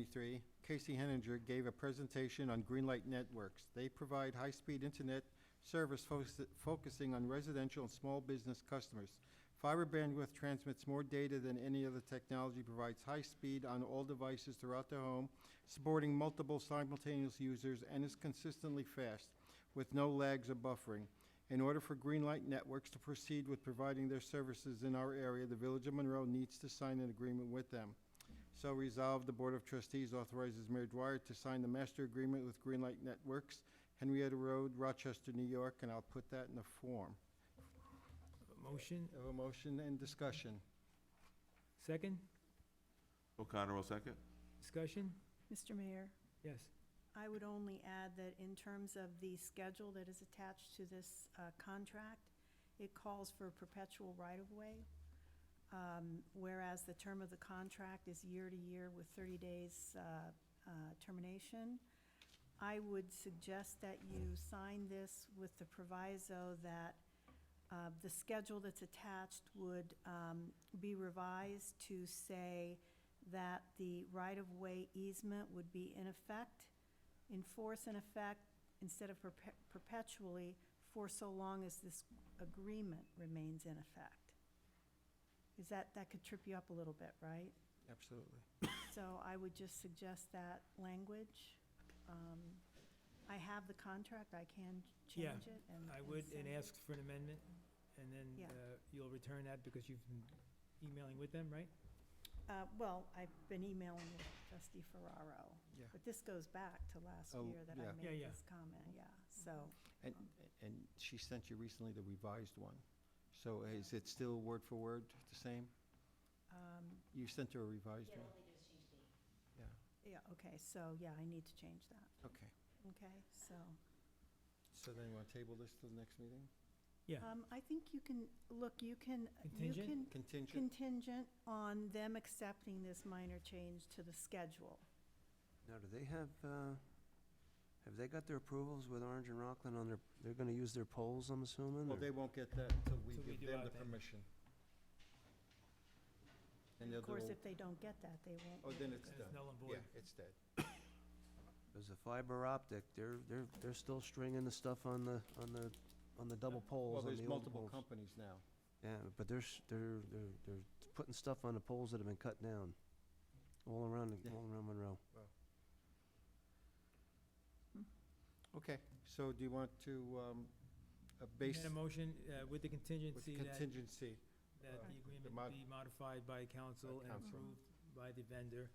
23, Casey Henninger gave a presentation on Greenlight Networks. They provide high-speed internet service focus- focusing on residential and small business customers. Fiber bandwidth transmits more data than any other technology, provides high speed on all devices throughout the home, supporting multiple simultaneous users, and is consistently fast with no lags or buffering. In order for Greenlight Networks to proceed with providing their services in our area, the Village of Monroe needs to sign an agreement with them. So resolved, the Board of Trustees authorizes Mayor Dwyer to sign the master agreement with Greenlight Networks, Henrietta Road, Rochester, New York, and I'll put that in the form. Motion, Have a motion and discussion. second, O'Connor will second. discussion? Mr. Mayor, Yes. I would only add that in terms of the schedule that is attached to this uh, contract, it calls for perpetual right-of-way, um, whereas the term of the contract is year-to-year with 30 days uh, uh, termination. I would suggest that you sign this with the proviso that uh, the schedule that's attached would um, be revised to say that the right-of-way easement would be in effect, in force and effect, instead of perpe- perpetually, for so long as this agreement remains in effect. Is that, that could trip you up a little bit, right? Absolutely. So I would just suggest that language. Um, I have the contract, I can Yeah, change it and. I would, send and it. ask for an amendment, and then Yeah. uh, you'll return that because you've been emailing with them, right? Uh, well, I've been emailing with trustee Ferraro, Yeah. but this goes back to last Oh, year that yeah. Mm-hmm. I Yeah, made yeah. this comment, yeah, so. And, and she sent you recently the revised one. So is it still word for word the same? um, You sent her a revised one? Yeah, Yeah, okay, so, yeah, I need to change that, okay. okay, so. So then you want to table this to the next meeting? Yeah, Um, I think you can, look, you can, you Contingent? can Contingent? contingent on them accepting this minor change to the schedule. Now, do they have, uh, have they got their approvals with Orange and Rockland on their, they're gonna use their poles, I'm assuming? Well, or- they won't get that until we Till we give do them our the thing. permission. And they'll Of do course, a- if they don't get that, they won't. Oh, then it's It's done. null and Yeah, void. it's dead. There's a fiber optic, they're, they're, they're still stringing the stuff on the, on the, on the double Well, poles, on there's the old multiple poles. companies now. Yeah, but they're, s- they're, they're, they're putting stuff on the poles that have been cut down, all around, Yeah. all around Monroe. Okay, so do you want to, um, uh, base and a motion uh, with the with contingency that, contingency? that the mod- agreement be modified by council and council. approved by the vendor,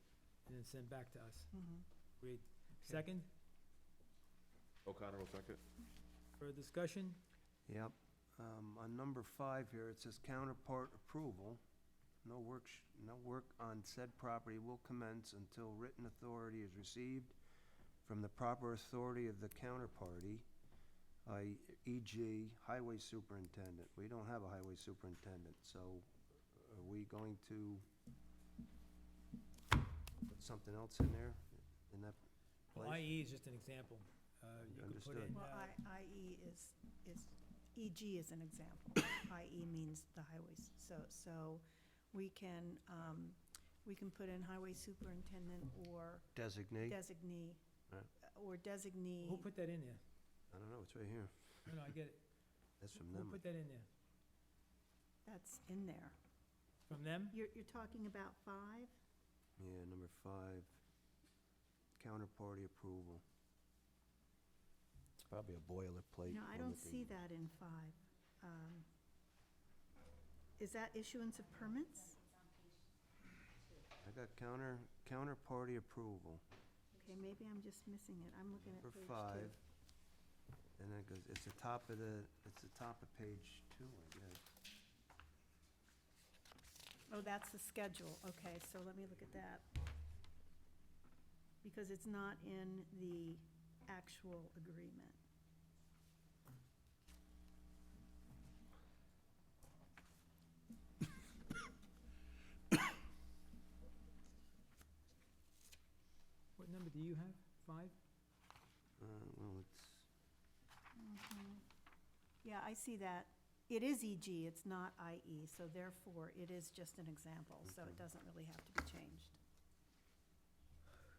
and then sent back to us. Mhm. Great. Second, O'Connor will second. for discussion? Yep. Um, on number five here, it says counterpart approval. No work, sh- no work on said property will commence until written authority is received from the proper authority of the counterparty, i.e., e.g., highway superintendent. We don't have a highway superintendent, so are we going to put something else in there? In that Well, place? IE E is just an example. Uh, You could put Understood. in, Well, uh, I, IE is, is, EG is an example. IE means the highways. So, so we can, um, we can put in highway superintendent or Designate? designee, Right. or who designee. put that in there? I don't know, it's right here. No, no, I get it. That's from Who them. put that in there? That's in there. From them? You're, you're talking about five? Yeah, number five, counterparty approval. It's probably a boilerplate. No, I don't see that in five. Um, Is that issuance of permits? I got counter, counterparty approval Okay, maybe I'm just missing it. I'm looking at for page two. five. And then it goes, it's the top of the, it's the top of page two, I guess. Oh, that's the schedule, okay, so let me look at that. Because it's not in the actual agreement. What number do you have? Five? Uh, well, it's, Yeah, I see that. It is E EG, it's not IE, so therefore, it is just an example, so it doesn't really have to be changed.